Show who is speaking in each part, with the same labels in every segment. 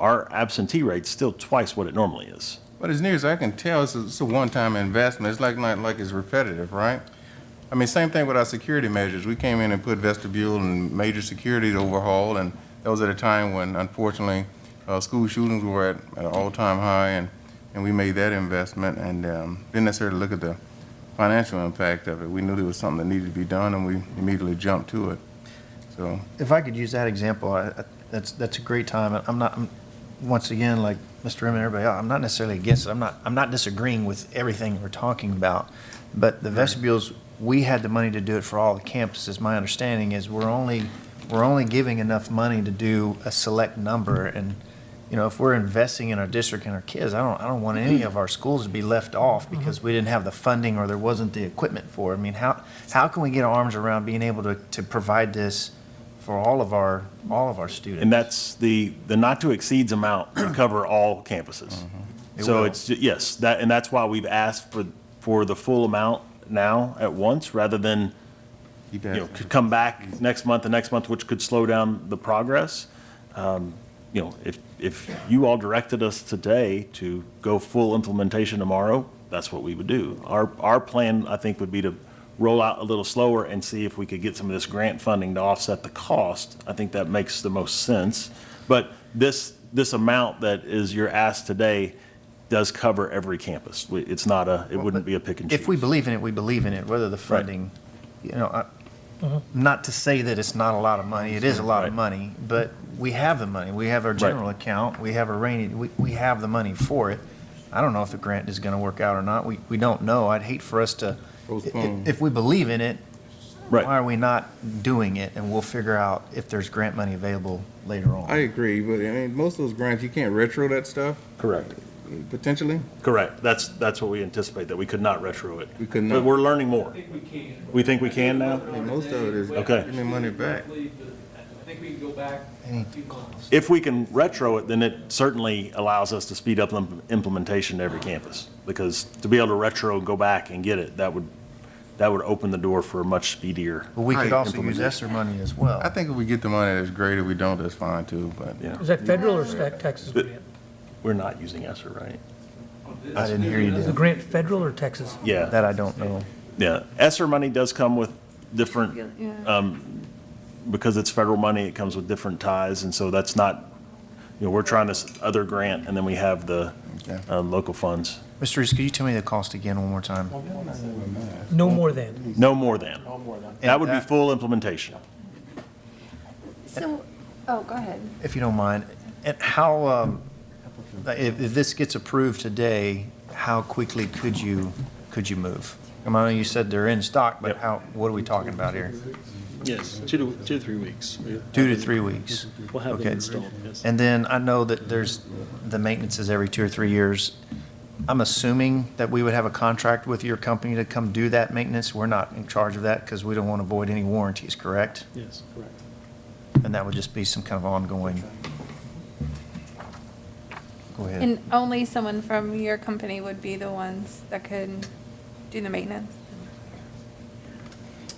Speaker 1: our absentee rate's still twice what it normally is.
Speaker 2: But as near as I can tell, it's a, it's a one-time investment. It's like, not like it's repetitive, right? I mean, same thing with our security measures. We came in and put vestibule and major security overhaul, and that was at a time when unfortunately, uh, school shootings were at, at an all-time high, and, and we made that investment and, um, didn't necessarily look at the financial impact of it. We knew there was something that needed to be done, and we immediately jumped to it. So,
Speaker 3: If I could use that example, I, I- that's, that's a great time. I'm not, I'm, once again, like Mr. Rim and everybody, else, I'm not necessarily against it. I'm not, I'm not disagreeing with everything we're talking about. But the vestibules, we had the money to do it for all the campuses. My understanding is we're only, we're only giving enough money to do a select number. And, you know, if we're investing in our district and our kids, I don't, I don't want any of our schools to be left off because we didn't have the funding or there wasn't the equipment for it. I mean, how, how can we get our arms around being able to, to provide this for all of our, all of our students?
Speaker 1: And that's the, the not to exceeds amount to cover all campuses.
Speaker 3: Mm-hmm. It
Speaker 1: So
Speaker 3: will.
Speaker 1: it's, ju- yes, that, and that's why we've asked for, for the full amount now at once, rather than,
Speaker 2: keep
Speaker 1: you
Speaker 2: that.
Speaker 1: know, could come back next month and next month, which could slow down the progress. Um, You know, if, if you all directed us today to go full implementation tomorrow, that's what we would do. Our, our plan, I think, would be to roll out a little slower and see if we could get some of this grant funding to offset the cost. I think that makes the most sense. But this, this amount that is your ask today does cover every campus. We- It's not a, it wouldn't be a pick and choose.
Speaker 3: If we believe in it, we believe in it, whether the funding, you know, I- not to say that it's not a lot of money, it is a lot of
Speaker 1: Right.
Speaker 3: money, but we have the money. We have our general account, we have a rainy, we, we have the money for it. I don't know if the grant is gonna work out or not, we, we don't know. I'd hate for us to, i- i-
Speaker 2: Postpone.
Speaker 3: if we believe in it,
Speaker 1: Right.
Speaker 3: why are we not doing it? And we'll figure out if there's grant money available later
Speaker 2: I
Speaker 3: on.
Speaker 2: agree, but I mean, most of those grants, you can't retro that stuff,
Speaker 1: Correct.
Speaker 2: potentially.
Speaker 1: Correct. That's, that's what we anticipate, that we could not retro it.
Speaker 2: We could not.
Speaker 1: But we're learning more.
Speaker 4: think we can.
Speaker 1: We think we can now?
Speaker 2: I mean, most of it is
Speaker 1: Okay.
Speaker 2: giving me money back.
Speaker 4: I believe that- I think we can go back a few months.
Speaker 1: If we can retro it, then it certainly allows us to speed up im- implementation to every campus. Because to be able to retro, go back and get it, that would, that would open the door for a much speedier.
Speaker 3: But we could
Speaker 2: Right.
Speaker 3: also use ESSER money as well.
Speaker 2: I think if we get the money, that's great. If we don't, that's fine too, but.
Speaker 1: Yeah.
Speaker 5: Is that federal or state Texas grant?
Speaker 1: We're not using ESSER, right?
Speaker 3: I didn't hear you,
Speaker 5: Is the
Speaker 3: Dan.
Speaker 5: grant federal or Texas?
Speaker 1: Yeah,
Speaker 3: That I don't know.
Speaker 1: yeah. ESSER money does come with different,
Speaker 3: Uh,
Speaker 6: Yeah,
Speaker 1: because it's federal money, it comes with different ties. And so that's not, you know, we're trying this other grant and then we have the
Speaker 2: Okay.
Speaker 1: uh, local funds.
Speaker 3: Mr. Reese, could you tell me the cost again one more time?
Speaker 5: No more than.
Speaker 1: No more than. That would be
Speaker 3: And that-
Speaker 1: full implementation.
Speaker 6: so, oh, go ahead.
Speaker 3: if you don't mind, and how, um, if, if this gets approved today, how quickly could you, could you move? I mean, you said they're in stock, but
Speaker 1: Yep.
Speaker 3: how, what are we talking about here?
Speaker 7: Yes, two to, two to three weeks. We-
Speaker 3: Two to three weeks?
Speaker 7: We'll have
Speaker 3: Okay.
Speaker 7: them installed, yes.
Speaker 3: And then I know that there's, the maintenance is every two or three years. I'm assuming that we would have a contract with your company to come do that maintenance? We're not in charge of that because we don't want to void any warranties, correct?
Speaker 7: Yes, correct.
Speaker 3: And that would just be some kind of ongoing. Go ahead.
Speaker 6: And only someone from your company would be the ones that could do the maintenance?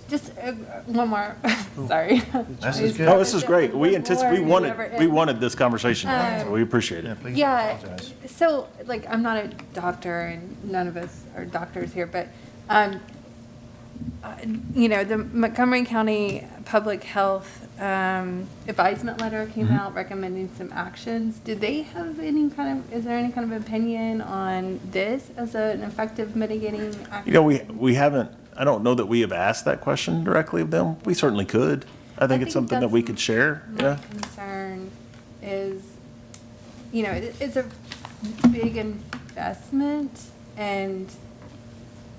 Speaker 6: Just uh, one more, sorry.
Speaker 3: This is good.
Speaker 1: No, Oh, this is great. We
Speaker 6: One more
Speaker 1: anticipate, we
Speaker 6: and never
Speaker 1: wanted, we
Speaker 6: end.
Speaker 1: wanted this conversation, so we appreciate
Speaker 3: Yeah,
Speaker 1: it.
Speaker 3: please
Speaker 6: Yeah,
Speaker 3: apologize.
Speaker 6: so, like, I'm not a doctor, and none of us are doctors here, but, um, uh, you know, the Montgomery County Public Health um, advisement letter came
Speaker 1: Mm-hmm.
Speaker 6: out recommending some actions. Do they have any kind of, is there any kind of opinion on this as an effective mitigating action?
Speaker 1: You know, we, we haven't, I don't know that we have asked that question directly of them. We certainly could. I think it's
Speaker 6: think
Speaker 1: something that we
Speaker 6: that's-
Speaker 1: could share,
Speaker 6: My
Speaker 1: yeah.
Speaker 6: concern is, you know, it- it's a big investment, and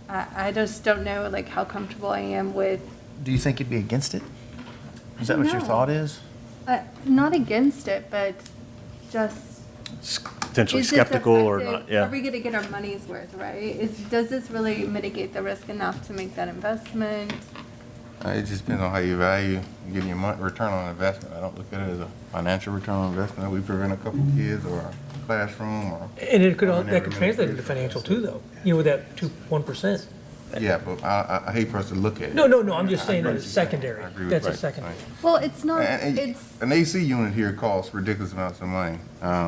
Speaker 6: I, I just don't know, like, how comfortable I am with,
Speaker 3: Do you think you'd be against it? Is that
Speaker 6: I
Speaker 3: what your
Speaker 6: know.
Speaker 3: thought is?
Speaker 6: uh, not against it, but just.
Speaker 1: S- Potentially
Speaker 6: is this
Speaker 1: skeptical or
Speaker 6: effective?
Speaker 1: not, yeah.
Speaker 6: Are we gonna get our money's worth, right? Is, does this really mitigate the risk enough to make that investment?
Speaker 2: Uh, It just depends on how you value getting your mon- return on investment. I don't look at it as a financial return on investment. We prevent a couple kids or a classroom or,
Speaker 5: And it could, all that could translate into financial too, though, you know, with that two, one percent.
Speaker 2: yeah, but I, I- I hate for us to look at it.
Speaker 5: No, no, no, I'm
Speaker 2: I
Speaker 5: just saying
Speaker 2: agree
Speaker 5: that
Speaker 2: with
Speaker 5: it's
Speaker 2: you.
Speaker 5: secondary.
Speaker 2: I agree with
Speaker 5: That's
Speaker 2: you.
Speaker 5: a
Speaker 2: Right,
Speaker 5: secondary.
Speaker 2: right.
Speaker 6: Well, it's not,
Speaker 2: And- and
Speaker 6: it's.
Speaker 2: An AC unit here costs ridiculous amounts of money. Um,